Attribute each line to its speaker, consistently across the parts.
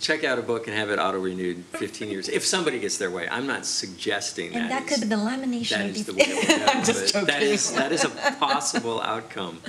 Speaker 1: check out a book and have it auto renewed 15 years if somebody gets their way. I'm not suggesting
Speaker 2: And that could
Speaker 1: is-
Speaker 2: be the lamination.
Speaker 1: That is the way
Speaker 2: def-
Speaker 1: it would go,
Speaker 2: I'm just
Speaker 1: but That
Speaker 2: joking.
Speaker 1: is, that is a possible outcome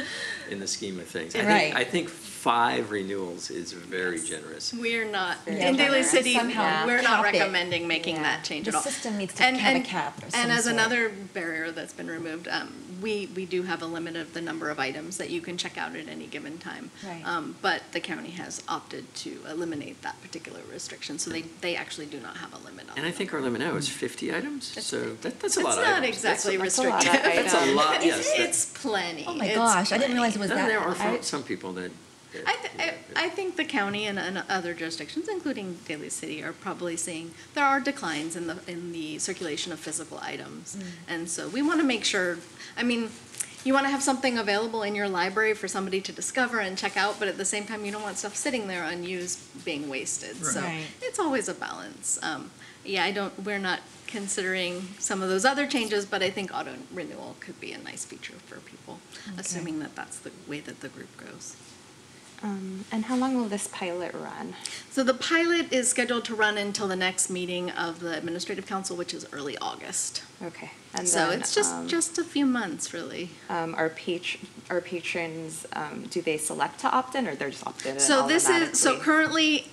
Speaker 1: in the scheme of things. I think-
Speaker 2: Right.
Speaker 1: I think five renewals is very generous.
Speaker 3: We're not,
Speaker 2: Yeah.
Speaker 3: in Daly City,
Speaker 2: Somehow
Speaker 3: we're not
Speaker 2: cap it.
Speaker 3: recommending making that change
Speaker 2: The
Speaker 3: at all.
Speaker 2: system needs to
Speaker 3: And-
Speaker 2: have a
Speaker 3: and-
Speaker 2: cap of some
Speaker 3: And as
Speaker 2: sort.
Speaker 3: another barrier that's been removed, um, we, we do have a limit of the number of items that you can check out at any given time.
Speaker 2: Right.
Speaker 3: Um, But the county has opted to eliminate that particular restriction, so they, they actually do not have a limit on
Speaker 1: And I
Speaker 3: it.
Speaker 1: think our limit now is 50 items,
Speaker 3: It's
Speaker 1: so
Speaker 3: 50.
Speaker 1: that- that's a lot
Speaker 3: It's
Speaker 1: of
Speaker 3: not
Speaker 1: items. That's a-
Speaker 3: exactly
Speaker 4: that's a lot
Speaker 3: restrictive.
Speaker 4: of
Speaker 1: That's a
Speaker 4: items.
Speaker 1: lot, yes. that-
Speaker 3: It's plenty.
Speaker 2: Oh my
Speaker 3: It's
Speaker 2: gosh, I didn't
Speaker 3: plenty.
Speaker 2: realize it was
Speaker 1: No,
Speaker 2: that.
Speaker 1: There are
Speaker 2: I-
Speaker 1: fo- some people that. that,
Speaker 3: I, th-
Speaker 1: you know,
Speaker 3: I, I think the county and, and other jurisdictions, including Daly City, are probably seeing there are declines in the in the circulation of physical items,
Speaker 2: Mm.
Speaker 3: and so we want to make sure. I mean, you want to have something available in your library for somebody to discover and check out, but at the same time, you don't want stuff sitting there unused being wasted. So
Speaker 2: Right.
Speaker 3: it's always a balance. Um, yeah, I don't. We're not considering some of those other changes, but I think auto renewal could be a nice feature for people, assuming that that's the way that the group goes.
Speaker 4: Um, and how long will this pilot run?
Speaker 3: So the pilot is scheduled to run until the next meeting of the administrative council, which is early August.
Speaker 4: Okay. And
Speaker 3: so
Speaker 4: then,
Speaker 3: it's just
Speaker 4: um,
Speaker 3: just a few months, really.
Speaker 4: um, our patr- our patrons. Um, do they select to opt in, or they're just opted in?
Speaker 3: So this is so
Speaker 4: automatically?
Speaker 3: currently,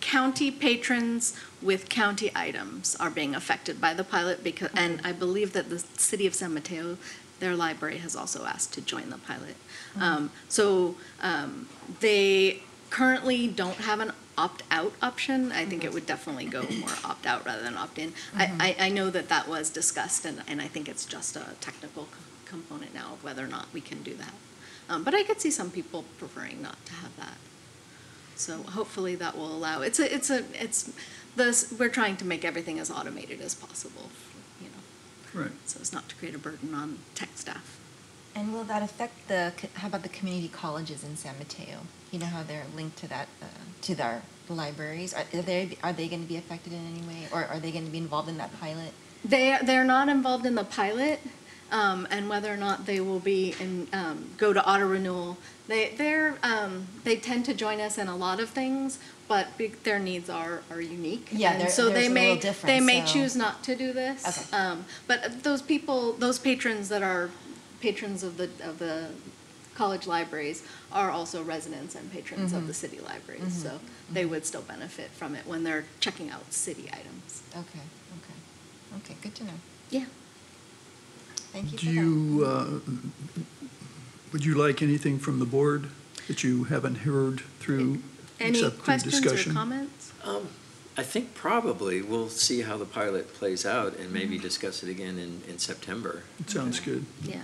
Speaker 3: county patrons with county items are being affected by the pilot because, and I believe that the city of San Mateo, their library has also asked to join the pilot. Um, so um, they currently don't have an opt-out option. I think it would definitely go more opt-out rather than opt-in. I, I, I know that that was discussed, and, and I think it's just a technical c- component now of whether or not we can do that. Um, but I could see some people preferring not to have that. So hopefully that will allow, it's a, it's a, it's, this, we're trying to make everything as automated as possible, you know,
Speaker 5: Right.
Speaker 3: so as not to create a burden on tech staff.
Speaker 2: And will that affect the, co- how about the community colleges in San Mateo? You know how they're linked to that, uh, to their libraries? Are are they, are they going to be affected in any way? Or are they going to be involved in that pilot?
Speaker 3: They, they're not involved in the pilot, um, and whether or not they will be in, um, go to auto renewal. They, they're, um, they tend to join us in a lot of things, but big, their needs are, are unique.
Speaker 2: Yeah,
Speaker 3: And
Speaker 2: they're-
Speaker 3: so
Speaker 2: theirs
Speaker 3: they
Speaker 2: are a
Speaker 3: may-
Speaker 2: little different,
Speaker 3: They may
Speaker 2: so-
Speaker 3: choose not to do this.
Speaker 2: Okay.
Speaker 3: Um, but those people, those patrons that are patrons of the, of the college libraries are also residents and patrons
Speaker 2: Mm-hmm.
Speaker 3: of the city libraries. So they would still benefit from it when they're checking out city items.
Speaker 2: Okay, okay. Okay, good to know.
Speaker 3: Yeah.
Speaker 2: Thank you for
Speaker 5: Do
Speaker 2: that.
Speaker 5: you, uh, would you like anything from the board that you haven't heard through,
Speaker 3: Any
Speaker 5: except through
Speaker 3: questions or
Speaker 5: discussion?
Speaker 3: comments?
Speaker 1: Um, I think probably we'll see how the pilot plays out and
Speaker 2: Mm-hmm.
Speaker 1: maybe discuss it again in, in September.
Speaker 5: It Sounds good.
Speaker 3: Yeah.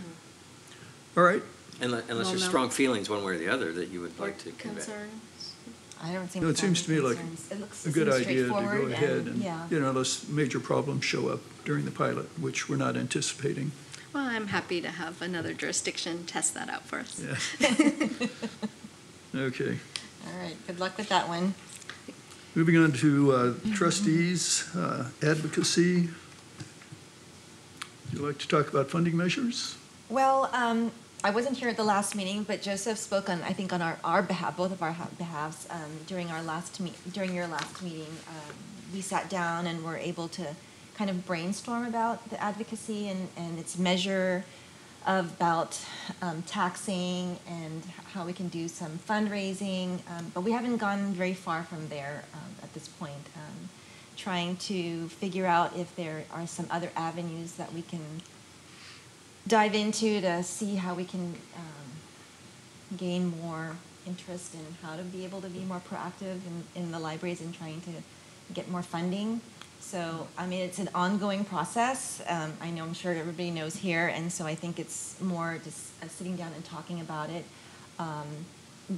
Speaker 5: All right,
Speaker 1: Unless, unless
Speaker 3: Well,
Speaker 1: there's
Speaker 3: no.
Speaker 1: strong feelings one way or the other that you would
Speaker 3: Or
Speaker 1: like to convey.
Speaker 3: concerns?
Speaker 2: I don't think.
Speaker 5: No, it
Speaker 2: it's on
Speaker 5: seems to me like
Speaker 2: concerns. It looks-
Speaker 5: a
Speaker 2: it
Speaker 5: good
Speaker 2: seems
Speaker 5: idea to go
Speaker 2: straightforward
Speaker 5: ahead and,
Speaker 2: yeah.
Speaker 5: you know, unless major problems show up during the pilot, which we're not anticipating.
Speaker 3: Well, I'm happy to have another jurisdiction test that out for us.
Speaker 5: Yeah. Okay,
Speaker 2: All right, good luck with that one.
Speaker 5: moving on to uh,
Speaker 2: Mm-hmm.
Speaker 5: trustees, uh, advocacy. Would you like to talk about funding measures?
Speaker 2: Well, um, I wasn't here at the last meeting, but Joseph spoke on, I think on our, our behalf, both of our ha- behalves, um, during our last meet, during your last meeting. Um, we sat down and were able to kind of brainstorm about the advocacy and, and its measure of about, um, taxing and how we can do some fundraising. Um, but we haven't gone very far from there, um, at this point. Um, trying to figure out if there are some other avenues that we can dive into to see how we can um, gain more interest in how to be able to be more proactive in, in the libraries and trying to get more funding. So, I mean, it's an ongoing process. Um, I know I'm sure everybody knows here, and so I think it's more just uh, sitting down and talking about it, um,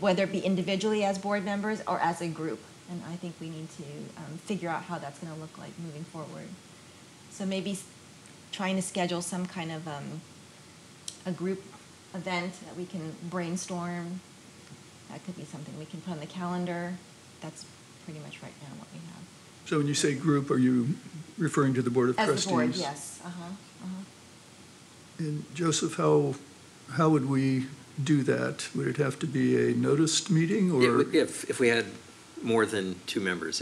Speaker 2: whether it be individually as board members or as a group. And I think we need to um, figure out how that's going to look like moving forward. So maybe s- trying to schedule some kind of um, a group event that we can brainstorm. That could be something we can put on the calendar. That's pretty much right now what we have.
Speaker 5: So when you say group, are you referring to the Board of Trustees?
Speaker 2: As the board, yes, uh-huh, uh-huh.
Speaker 5: And Joseph, how, how would we do that? Would it have to be a noticed meeting or?
Speaker 1: It would- If, if we had more than two members,